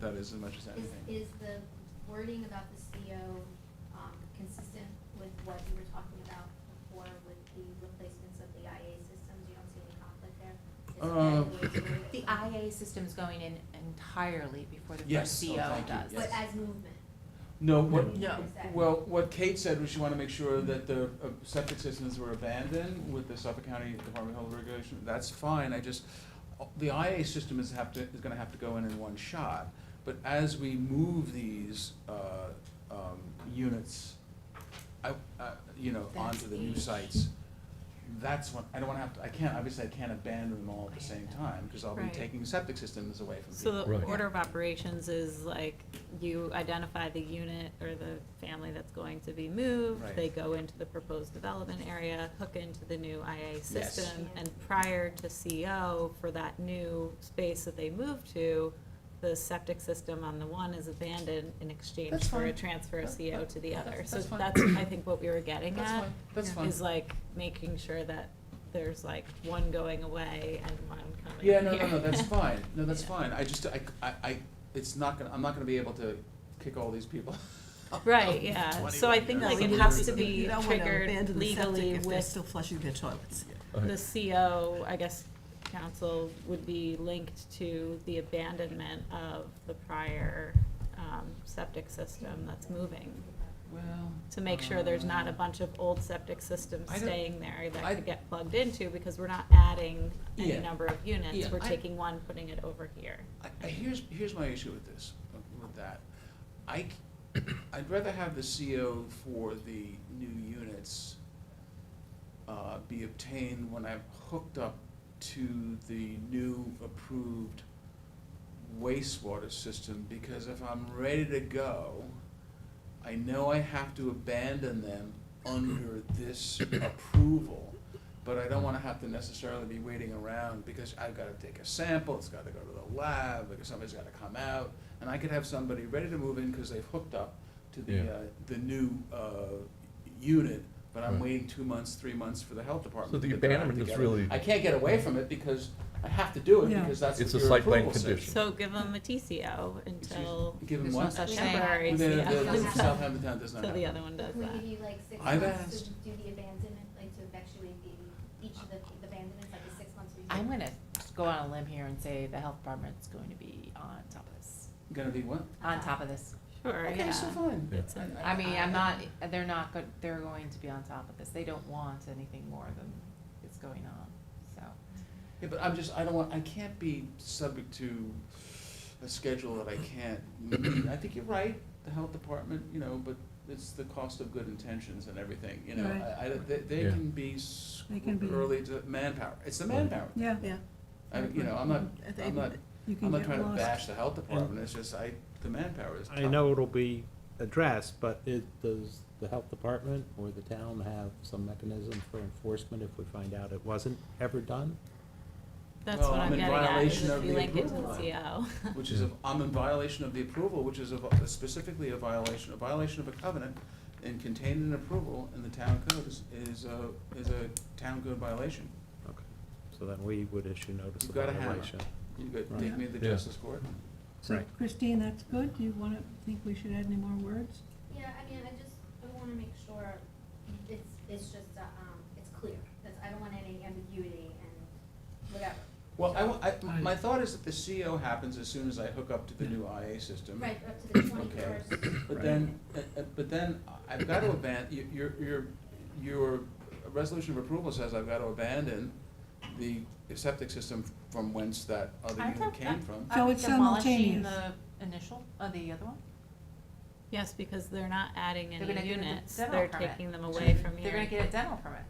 That is as much as anything. Is, is the wording about the CO um, consistent with what you were talking about before with the replacements of the IA systems? You don't Uh, see any conflict there? Is that the way to word it? The IA system's going in entirely before the Yes. first Oh, CO thank you. does. But Yes. as movement? No, what, No. Exactly. well, what Kate said was she wanted to make sure that the uh, septic systems were abandoned with the Suffolk County Department of Health regulation. That's fine, I just, uh, the IA system is have to, is gonna have to go in in one shot. But as we move these, uh, um, units, I, uh, you know, That's onto the new each. sites, that's when, I don't wanna have to, I can't, obviously I can't abandon them all at the same time, cause I'll be Right. taking septic systems away from people. So the Right. order of operations is like, you identify the unit or the family that's going to be moved. Right. They go into the proposed development area, hook into the new IA system. Yeah. And prior to CO for that new space that they move to, the septic system on the one is abandoned in exchange That's for a fine. transfer of That- CO that- to the that's- other. So that's fine. that's, I think, what we were getting That's at. fine, that's Yeah. fine. Is like making sure that there's like one going away and one coming Yeah, no, no, here. no, that's fine, no, that's Yeah. fine, I just, I, I, I, it's not gonna, I'm not gonna be able to kick all these people. Right, yeah, so I think like it Absolutely. has to You be don't wanna triggered abandon the septic legally if they're with still flushing their toilets. the CO, I guess, council would be linked to the abandonment of the prior, um, septic system that's moving. Well. To make sure there's not a uh, bunch of old septic systems I don't- staying there I- that could get plugged into, because we're not adding Yeah. any number of units, Yeah, we're I- taking one, putting it over here. I, I, here's, here's my issue with this, with that. I, c- I'd rather have the CO for the new units, uh, be obtained when I've hooked up to the new approved wastewater system, because if I'm ready to go, I know I have to abandon them under this approval, but I don't wanna have to necessarily be waiting around, because I've gotta take a sample, it's gotta go to the lab, because somebody's gotta come out, and I could have somebody ready to move in, cause they've hooked up to the, Yeah. uh, the new, uh, unit, but I'm Right. waiting two months, three months for the health department. So the to get their act abandonment is together. really- I can't get away from it, because I have to do it, Yeah. because that's what It's a your site plan approval says. condition. So give them a TCO Excuse- until, Give them There's no what? such thing. temporary The- the- Yeah. the CO, Southampton Town does not until have the that. other one does Can we that. give you like six I've months to asked- do the abandonment, like to effectuate the, each of the the abandonments, like the six months? where you- I'm gonna go on a limb here and say the health department's going to be on top of this, Gonna be what? on top of this. Sure, Okay, so yeah. fine. Yeah. I mean, I'm not, they're not, go- they're going to be on top of this. They don't want anything more than is going on, so. Yeah, but I'm just, I don't want, I can't be subject to a schedule that I can't meet. I think you're right, the health department, you know, but it's the cost of good intentions and everything, you know. Right. I, I, they, they Yeah. can be s- They can be- early to manpower. It's the Right. manpower. Yeah. Yeah, I, mean, you know, I'm not, I think I'm not, You can I'm not get trying to lost. bash the health department. It's just I, the manpower is tough. I know it'll be addressed, but it, does the health department or the town have some mechanism for enforcement if we find out it wasn't ever done? That's Well, what I'm I'm in getting at, is violation of if you the link it to approval. the CO. which is, a- I'm in violation of the approval, which is a- specifically a violation, a violation of a covenant, and contained in approval in the town code is, is a, is a town code violation. Okay, so then we would issue notice You've of got a hammer. violation. You could Right. take me to the Yeah. justice court. So Right. Christine, that's good. Do you wanna, think we should add any more words? Yeah, I mean, I just, I wanna make sure it's, it's just, uh, um, it's clear, that's, I don't want any ambiguity and whatever. Well, I wa- I- my thought is that the CO happens as soon as I hook up to the new IA system. Right, up to the twenty-first. But then, uh, uh, but then I've got to abandon, your, your, your resolution of approval says I've got to abandon the septic system from whence that other Aren't unit there- came from. So Aren't we it's demolishing simultaneous. The initial, uh, the other one? Yes, because they're not adding They're gonna any give them units, dental they're permit. taking them away from They're gonna here. get a dental permit.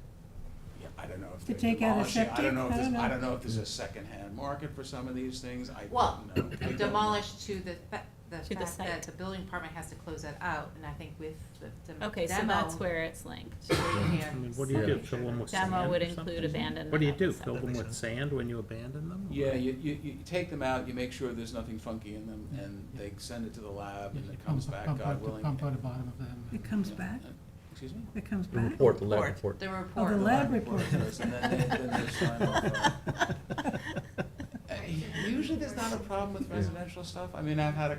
Yeah, I don't know if To they're take out a demolishing, I septic? don't know if I there's, don't I know. don't know if there's a secondhand market for some of these things, I don't Well, know. I don't know. Demolish to the, fa- the To the fact that site. the building department has to close that out, and I think with the dem- demo. Okay, so that's where it's linked. you I can't mean, what do you say- do, fill them with sand Demo would or include something? abandonment. What do you of the do, fill septic. them with sand when you abandon them? Yeah, you, you, you take them out, you make sure there's nothing funky in them, and they send it to the lab, and it comes back, God willing. It comes back? Excuse me? It comes The back? report, the lab Report. report. The Oh, the report. lab report. does, And then they, then they sign off on it. Uh, Usually there's not a problem with Yeah. residential stuff, I mean, I've had a